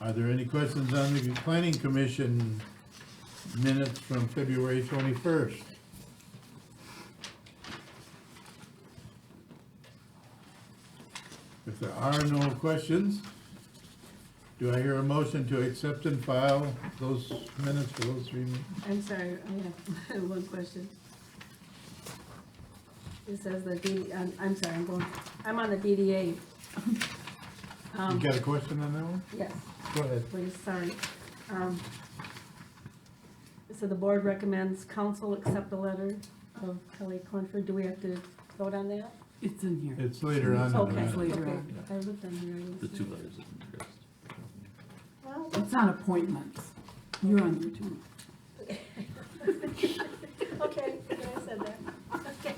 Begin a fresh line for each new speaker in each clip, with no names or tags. Are there any questions on the planning commission minutes from February twenty-first? If there are no questions, do I hear a motion to accept and file those minutes for those three? meetings?
I'm sorry, I have one question. It says the D, I'm, I'm sorry, I'm going, I'm on the DDA.
You
Um,
got a question on that one?
yes,
Go ahead.
please, sorry. Um, So the board recommends council accept the letter of Kelly Clunford. Do we have to vote on that?
It's in here.
It's later on. in the
Okay,
minutes.
later
okay.
on.
I looked on here. I didn't
The
see
two
it.
letters of interest.
Well,
It's on appointments. You're on your two.
Okay, I said that. Okay.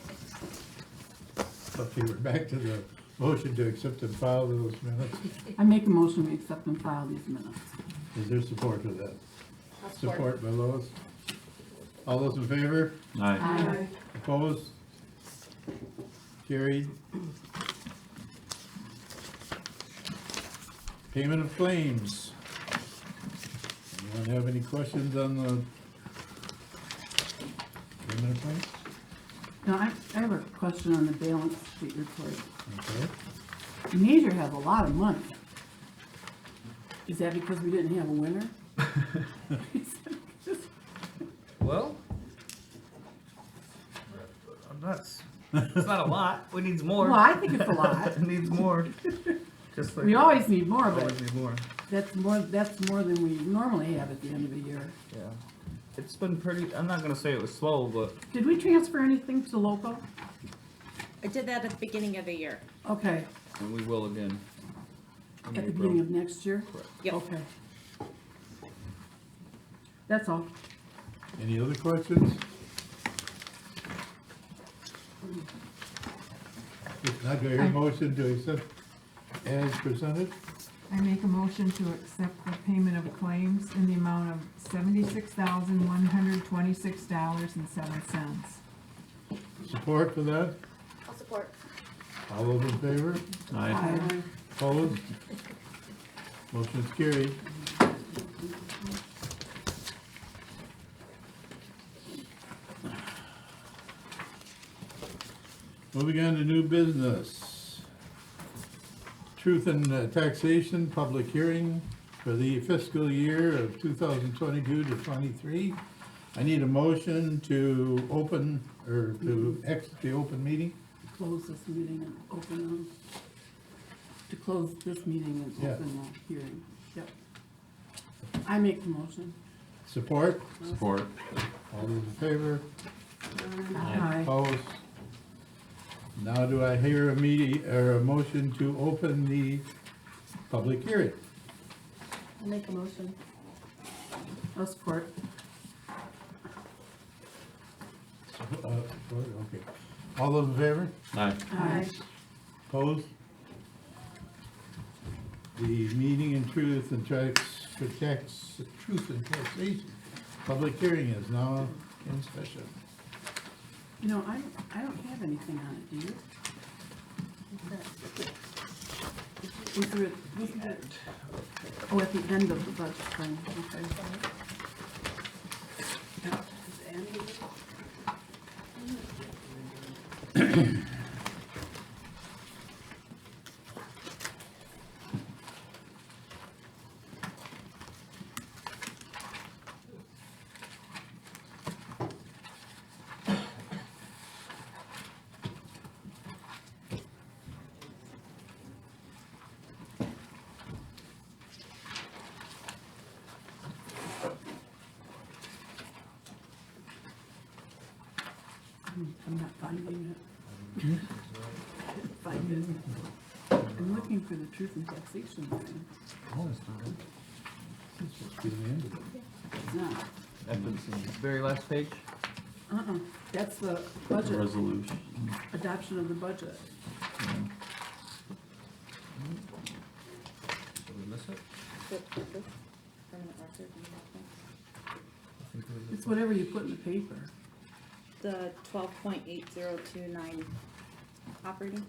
Okay, we're back to the motion to accept and file those minutes.
I make a motion, we accept and file these minutes.
Is there support for that? Support by Lois. All those in favor?
Aye.
Aye.
Opposed? Carried. Payment of claims. Anyone have any questions on the payment of claims?
Now, I, I have a question on the balance sheet report.
Okay.
Major has a lot of money. Is that because we didn't have a winner?
Well, I'm not. s- It's not a lot. We needs more.
Well, I think it's a lot.
It needs more. Just like
We always need more, but
always need more.
that's more, that's more than we normally have at the end of the year.
Yeah. It's been pretty. I'm not gonna say it was slow, but
Did we transfer anything to local?
I did that at the beginning of the year.
Okay,
and we will again. in
at the
April.
beginning of next year?
Correct.
Yep.
Okay. That's all.
Any other questions? If not, do I hear a motion to accept as presented?
I make a motion to accept the payment of claims in the amount of seventy-six thousand, one hundred twenty-six dollars and seven cents.
Support for that?
I'll support.
All those in favor?
Aye.
Aye.
Opposed? Motion's carried. Moving on to new business. Truth and uh, Taxation Public Hearing for the fiscal year of 2022 to 23. I need a motion to open, or to exit the open meeting.
close this meeting and open the, to close this meeting and
Yeah.
open the hearing. Yep. I make the motion.
Support?
Support.
All those in favor?
Aye.
Opposed? Now do I hear a meeting, or a motion to open the public hearing?
I'll make a motion.
I'll support.
Uh, Okay. All those in favor?
Aye.
Aye.
Opposed? The meeting in truth and tax, for tax, truth and taxation, public hearing is now in session.
You know, I, don't- I don't have anything on it, do you? Was there, a- wasn't there? Oh, at the end of the budget thing, okay. Yeah, at the end of it. Hmm, I'm not finding it. Find it. I'm looking for the truth and taxation thing.
Oh, it's not open. It's just been ended.
It's not.
At the very last page.
Uh-uh, that's the
The
budget,
Resolution.
adoption of the budget.
Did we miss it? I think we did.
It's whatever you put in the paper.
The twelve point eight zero two nine operating.